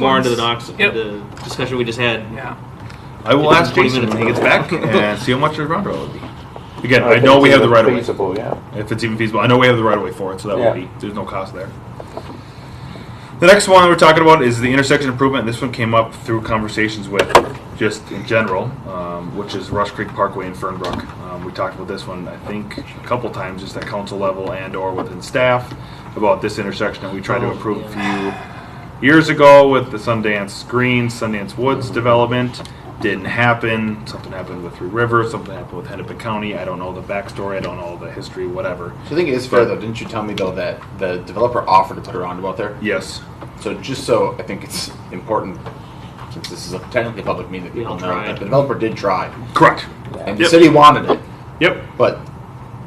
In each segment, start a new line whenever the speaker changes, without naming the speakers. more
ones.
into the docs,
Yep.
the discussion we just had.
Yeah.
I will
It's
ask
been 20
Jason when he
minutes
gets
ago.
back and see how much the roundabout would be. Again, I know we have the right of way,
Feasible, yeah.
if it's even feasible. I know we have the right of way for it, so that
Yeah.
would be, there's no cost there. The next one we're talking about is the intersection improvement. This one came up through conversations with, just in general, um, which is Rush Creek Parkway in Fernbrook. Um, we talked about this one, I think, a couple times, just at council level and or within staff about this intersection that we tried to
Oh,
improve a
yeah.
few years ago with the Sundance Greens, Sundance Woods development. Didn't happen. Something happened with Three Rivers. Something happened with Hennepin County. I don't know the backstory. I don't know the history. Whatever.
So I think it is fair though. Didn't you tell me though that the developer offered to put a roundabout there?
Yes.
So just so I think it's important, since this is a technically a public meeting, that
We
people
all
know
tried.
that the developer did try,
Correct.
and the
Yep.
city wanted it,
Yep.
but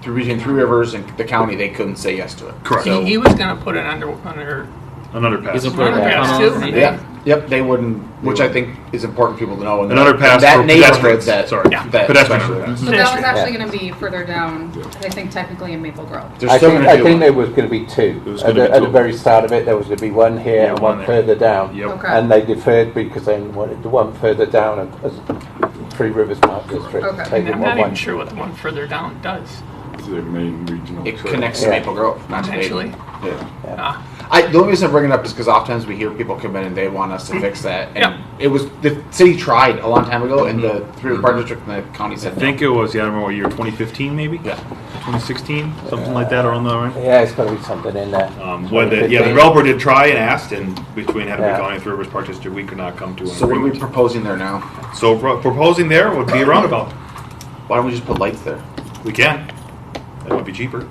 through between Three Rivers and the county, they couldn't say yes to it.
Correct.
So,
He, he was gonna put it under under
Another pass.
He's a player. Yeah.
underpass too.
Yeah.
yeah, yep, they wouldn't, which I think is important for people to know. And
Another
that,
pass
that
for
neighborhood
pedestrians.
That,
Sorry.
that
Pedestrian
especially.
pass.
So that was
Pedestrian.
actually going to be further down, I think technically in Maple Grove.
There's
I
still
think,
gonna
I
be
think
one.
there was going to be two.
It was
At
gonna
the,
be
at the
two.
very start of it, there was going to be one here
Yeah,
and
one
one,
there.
further down.
Yep.
Okay.
And they deferred because they wanted the one further down as, as Three Rivers Park District.
Okay.
They
And
didn't
I'm
want
not even
one.
sure what the one further down does
their main regional.
It
trail.
connects to
Yeah.
Maple Grove, not to Maple.
potentially.
Yeah.
Ah.
I, the only reason I bring it up is because oftentimes we hear people come in and they want us to fix that. And
Yeah.
it was the city tried a long time ago, and the three river park district and the county said
Mm-hmm. I think it was, yeah, I don't remember what year, 2015 maybe?
no. Yeah.
2016, something like that around the line.
Yeah, it's got to be something in there.
Um, when the, yeah, the
2015.
developer did try and asked, and between Hennepin
Yeah.
County and Three Rivers Park District, we could not come to an
So what are we
agreement.
proposing there now?
So pro- proposing there would be a roundabout.
Why don't we just put lights there?
We can. That would be cheaper.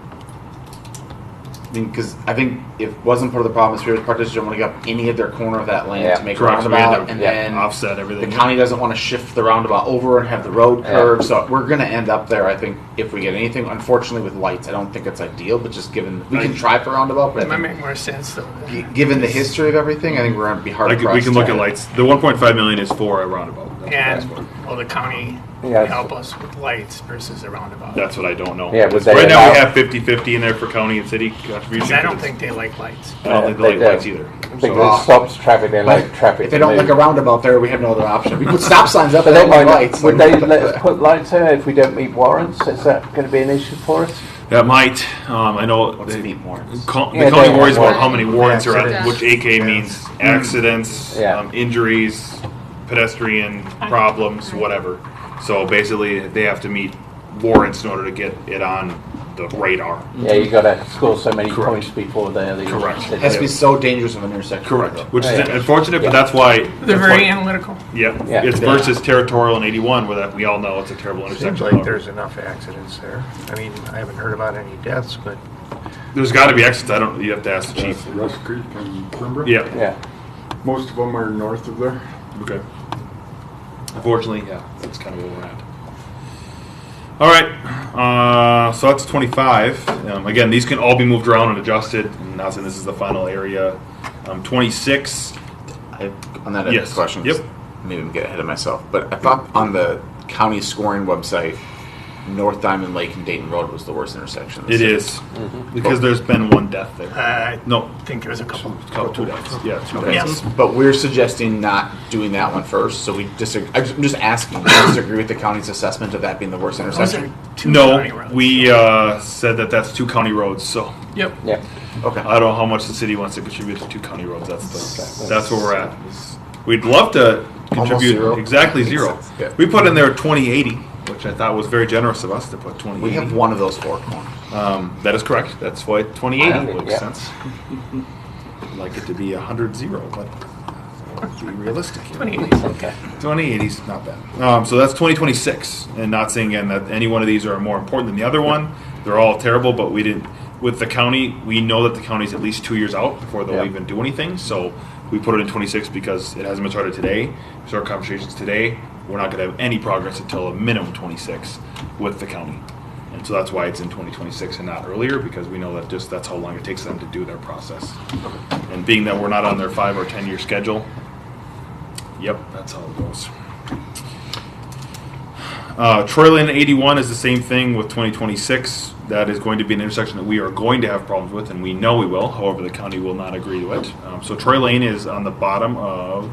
I mean, because I think it wasn't part of the problem. is Three Rivers Park District want to give up any of their corner of that land
Yeah.
to make a
Correct, so we had
roundabout,
to,
and
yeah,
then
Offset
the
everything.
county doesn't want to shift the roundabout over and have the road
Yeah.
curve. So we're going to end up there, I think, if we get anything. Unfortunately, with lights, I don't think it's ideal. But just given we can
I-
try for roundabout, but I
That might
think
make more sense though.
G- Given the history of everything, I think we're gonna be hard
Like,
pressed.
we can look
to-
at lights. The 1.5 million is for a roundabout. That's- that's
And
what-
will the county
Yes.
help us with lights versus a roundabout?
That's what I don't know.
Yeah, would they
right now we
allow-
have 50-50 in there for county and city contribution.
'Cause I don't
but
think they like lights.
I don't
Yeah,
think they like
they
lights
do.
either.
Because it stops traffic, they like traffic.
If they
to
don't
move.
like a roundabout there, we have no other option. We put stop signs up
But
and
they
then
might
lights.
not, would
like-
they let us put lights there if we don't meet warrants? Is that going to be an issue for us?
That might. Um, I know
What's
they-
meet warrants?
co- the
Yeah,
county
they-
worries about
yeah.
how many warrants are out,
Accidents.
which AK means accidents,
Yeah.
um, injuries, pedestrian problems, whatever. So basically, they have to meet warrants in order to get it on the radar.
Yeah, you got to score so many
Correct.
points before they're the
Correct.
It has to be
Yeah.
so dangerous of an intersection.
Which is
Yeah.
unfortunate, but
Yeah.
that's why.
They're
that's
very
why-
analytical.
Yeah,
Yeah.
it's
Yeah.
versus territorial in 81, where that we all know it's a terrible intersection.
Seems like there's enough accidents there. I mean, I haven't heard about any deaths, but
there's got to be exits. I don't. You have to ask the
That's
chief.
Rush Creek and Cranbrook.
Yeah.
Yeah.
Most of them are north of there.
Okay. Unfortunately, yeah, that's kind of where we're at. All right, uh, so that's 25. Um, again, these can all be moved around and adjusted. I'm not saying this is the final area. Um, 26. I,
On that
Yes.
question,
Yep.
maybe I'm getting ahead of myself, but I thought on the county scoring website, North Diamond Lake and Dayton Road was the worst intersection. in the
it
city.
is because there's been one death there.
Uh,
No,
I think there was a couple.
couple, two deaths. Yeah, two
Yes.
deaths.
But we're suggesting not doing that one first, so we disagree. I'm just asking, I disagree with the county's assessment of that being the worst
Those
intersection.
are two county
No,
roads.
we uh, said that that's two county roads. So
Yep.
Yeah.
Okay.
I don't know how much the city wants to contribute to two county roads. That's the, that's where we're at. is We'd love to contribute
zero.
exactly
Makes
zero.
sense, yeah.
We put in there twenty eighty, which I thought was very generous of us to put twenty
We
eighty.
have one of those four corners.
Um, that is correct. That's why twenty eighty
Yeah.
makes
Yeah.
sense. I'd like it to be a hundred zero, but let's be realistic here.
Twenty.
2080 is not bad. Um, so that's 2026, and not saying again that any one of these are more important than the other one. They're all terrible, but we didn't. With the county, we know that the county's at least two years out before they'll
Yeah.
even do anything. So we put it in 26 because it hasn't been started today. So our conversations today, we're not going to have any progress until a minimum 26 with the county, and so that's why it's in 2026 and not earlier because we know that just that's how long it takes them to do their process. And being that we're not on their five or 10 year schedule, Yep, that's how it goes. Uh, Troy Lane 81 is the same thing with 2026. That is going to be an intersection that we are going to have problems with, and we know we will. However, the county will not agree to it. Um, so Troy Lane is on the bottom of